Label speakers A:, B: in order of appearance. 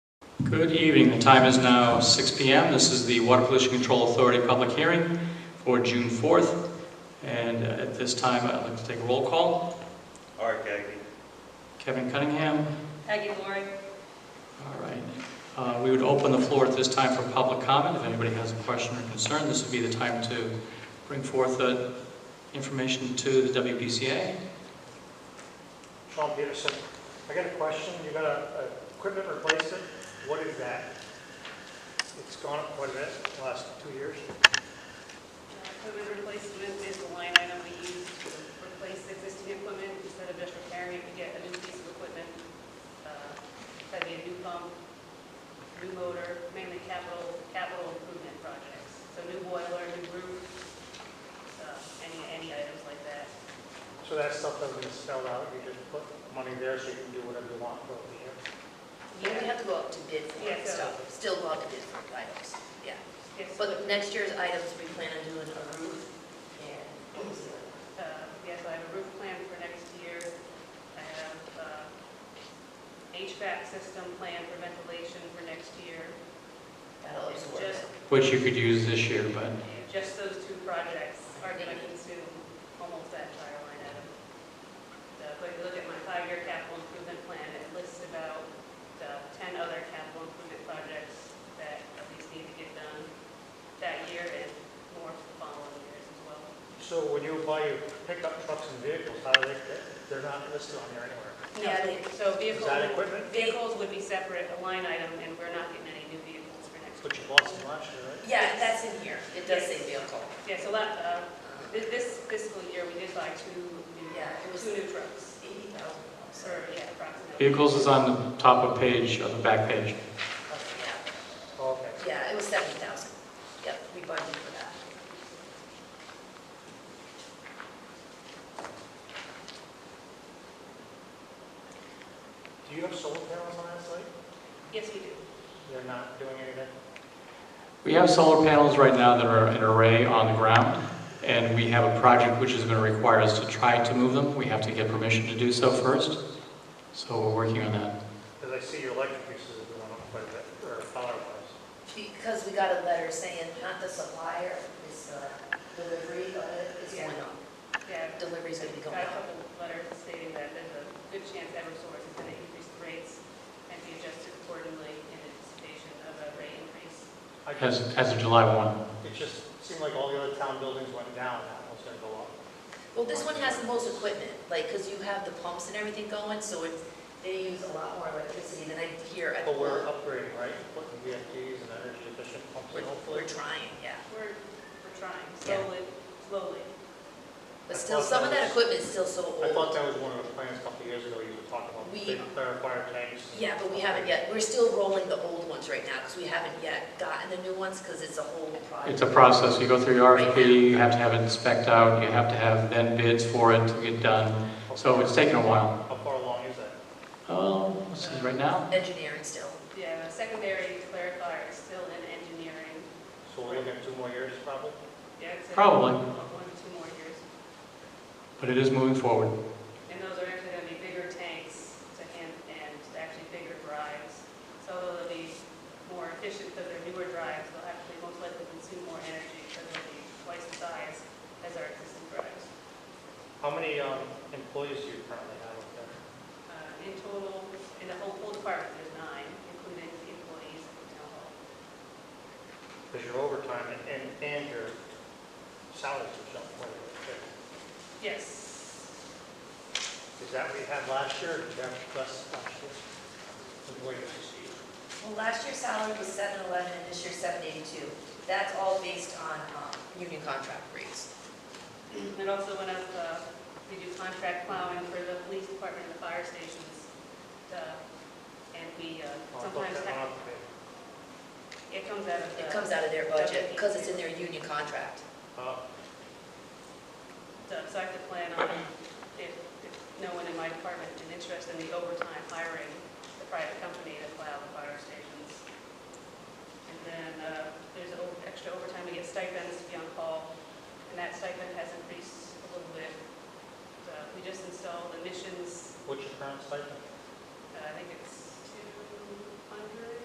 A: Good evening. The time is now 6 PM. This is the Water Pollution Control Authority public hearing for June 4th. And uh, at this time, I'd like to take a roll call.
B: Art Gagey.
A: Kevin Cunningham.
C: Peggy uh, Laurie.
A: All right. Uh, We would open the floor at this time for public comment. If anybody has a question or concern, this would be the time to bring forth uh, information to the WPCA.
D: Sean Peterson, I got a question. You got a, a equipment replacement, what is that? It's gone up quite a bit the last two years.
C: Equipment replacement is the line item we use to replace existing equipment instead of just repairing it, we get a new piece of equipment. uh, That'd be a new pump, new motor, mainly capital, capital improvement projects. So new boiler, new roof, uh, any, any items like that.
D: So that stuff doesn't get spelled out, you just put money there so you can do whatever you want for the year.
E: Yeah, we have to go up to bid for
C: Yeah,
E: it,
C: so-
E: so, still go out to bid for items, yeah.
C: Yes,
E: But next year's items, we plan on doing a roof and,
C: uh, yes, I have a roof plan for next year. I have uh, HVAC system plan for ventilation for next year.
E: that'll
C: It's
E: absorb
C: just
E: it.
A: Which you could use this year, but
C: Just those two projects are going to consume almost that entire line item. So, But if you look at my five-year capital improvement plan, it lists about uh, 10 other capital improvement projects that at least need to get done that year and more for the following years as well.
D: So when you buy your pickup trucks and vehicles, how do they, they're not listed on there anywhere.
E: Yeah, they-
C: So
D: Is that
C: vehicles,
D: equipment?
C: vehicles would be separate, a line item, and we're not getting any new vehicles for next
D: But you
C: year.
D: bought some last year, right?
E: Yeah, that's in here, it does say vehicle.
C: Yeah, so that, uh,
E: Uh,
C: thi- this fiscal year, we did buy two new,
E: Yeah, it was-
C: two new trucks,
E: Eighty thousand,
C: or, yeah, approximately.
A: vehicles is on the top of page, on the back page.
E: yeah,
D: Oh, Okay.
E: yeah, it was seventy thousand, yep, we budgeted for that.
D: Do you have solar panels on that site?
C: Yes, we do.
D: They're not doing anything?
A: We have solar panels right now that are an array on the ground, and we have a project which is going to require us to try to move them. We have to get permission to do so first, so we're working on that.
D: Because I see your electric uses are going up quite a bit, or power-wise.
E: Because we got a letter saying not the supplier, it's the delivery of it is going up.
C: Yeah,
E: Delivery's gonna be
C: Got
E: going
C: a
E: up.
C: couple of letters stating that there's a good chance Eversource is going to increase the rates and be adjusted accordingly in anticipation of a rate increase.
D: I
A: As, as of July 1.
D: It just seemed like all the other town buildings went down, that one's gonna go up.
E: Well, this one has the most equipment, like, because you have the pumps and everything going, so it's, they use a lot more electricity than I hear at the
D: But we're
E: plant.
D: upgrading, right, putting VFDs and energy efficient pumps in
E: We're-
D: hopefully.
E: We're trying, yeah.
C: We're, we're trying
E: Yeah.
C: slowly, slowly.
E: But still, some of that equipment's still so
D: I thought
E: old.
D: that was one of the plans a couple of years ago, you were talking about
E: We-
D: big clarifier tanks. and-
E: Yeah, but we haven't yet, we're still rolling the old ones right now, because we haven't yet gotten the new ones, because it's a whole
A: It's
E: project.
A: a process. You go through your RFP, you have to have it spec'd out, you have to have then bids for it to get done.
D: How
A: So
D: far-
A: it's taken a while.
D: How far along is that?
A: Oh, let's see, right now?
E: Engineering still.
C: Yeah, the secondary clarifier is still in engineering.
D: So we're looking at two more years probably?
C: Yeah, it's a-
A: Probably.
C: One or two more years.
A: But it is moving forward.
C: And those are actually going to be bigger tanks to hand, and actually bigger drives. So they'll be more efficient because they're newer drives, they'll actually most likely consume more energy because they'll be twice the size as our existing drives.
D: How many um, employees do you currently have up there?
C: Uh, In total, in the whole, whole department, there's nine, including the employees at the town hall.
D: Because your overtime and- and, and your salaries are jumping quite a bit. too.
C: Yes.
D: Is that what you had last year, or did you have less last year? Employees, I see.
E: Well, last year's salary was seven eleven, and this year's seven eighty-two. That's all based on, um, union contract rates.
C: It also went up, uh, we do contract plowing for the police department and the fire stations. uh, And we uh,
D: Oh, I thought
C: sometimes,
D: that
C: have-
D: went up a bit.
C: it comes out of the.
E: It comes out of their budget, because it's in their union contract.
D: Uh,
C: So so I have to plan on, if, if no one in my department is interested in the overtime hiring the private company to plow the fire uh, uh, uh,